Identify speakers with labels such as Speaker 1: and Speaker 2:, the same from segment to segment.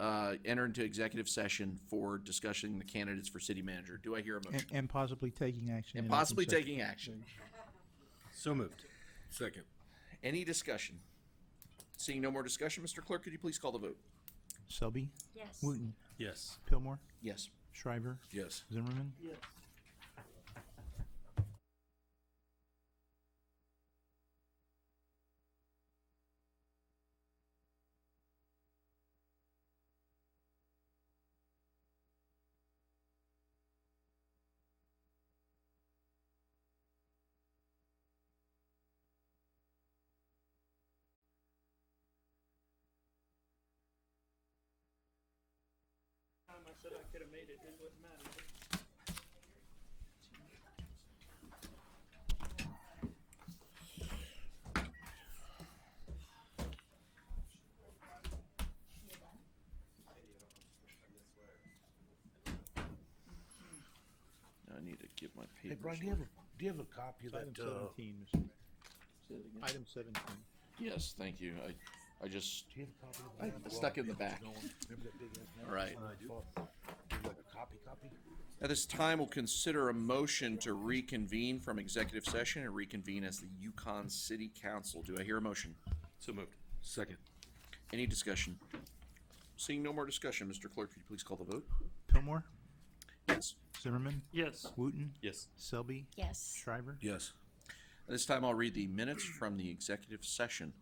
Speaker 1: uh, enter into executive session for discussing the candidates for city manager. Do I hear a
Speaker 2: and,
Speaker 1: motion?
Speaker 2: and possibly taking action. in
Speaker 1: And
Speaker 2: open
Speaker 1: possibly
Speaker 2: session.
Speaker 1: taking action.
Speaker 3: So moved.
Speaker 4: Second.
Speaker 1: Any discussion? Seeing no more discussion, Mr. Clerk, could you please call the vote?
Speaker 2: Selby,
Speaker 5: Yes.
Speaker 2: Wooten,
Speaker 3: Yes.
Speaker 2: Pillmore,
Speaker 1: Yes.
Speaker 2: Shriver,
Speaker 4: Yes.
Speaker 2: Zimmerman.
Speaker 6: I said I could have made it, it wouldn't matter.
Speaker 1: I need to get my
Speaker 4: Hey,
Speaker 1: papers.
Speaker 4: Brian, do you have, a do you have a copy of
Speaker 2: Item
Speaker 4: that, uh, do
Speaker 2: seventeen, Mr. Item seventeen.
Speaker 1: Yes, thank you. I, I just,
Speaker 4: you have a copy of that?
Speaker 1: I stuck it in the back.
Speaker 4: Remember that big ass?
Speaker 1: All right.
Speaker 4: I do. Like a copy, copy?
Speaker 1: At this time, we'll consider a motion to reconvene from executive session and reconvene as the Yukon City Council. Do I hear a motion?
Speaker 3: So moved. Second.
Speaker 1: Any discussion? Seeing no more discussion, Mr. Clerk, could you please call the vote?
Speaker 2: Pillmore,
Speaker 1: Yes.
Speaker 2: Zimmerman,
Speaker 6: Yes.
Speaker 2: Wooten,
Speaker 3: Yes.
Speaker 2: Selby,
Speaker 5: Yes.
Speaker 2: Shriver.
Speaker 4: Yes.
Speaker 1: At this time, I'll read the minutes from the executive session.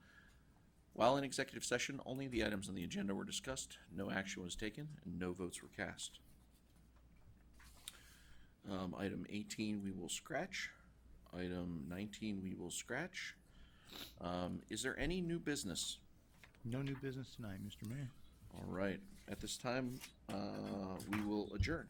Speaker 1: While in executive session, only the items on the agenda were discussed, no action was taken, and no votes were cast. Um, item eighteen, we will scratch. Item nineteen, we will scratch. Um, is there any new business?
Speaker 2: No new business tonight, Mr. Mayor.
Speaker 1: All right, at this time, uh, we will adjourn.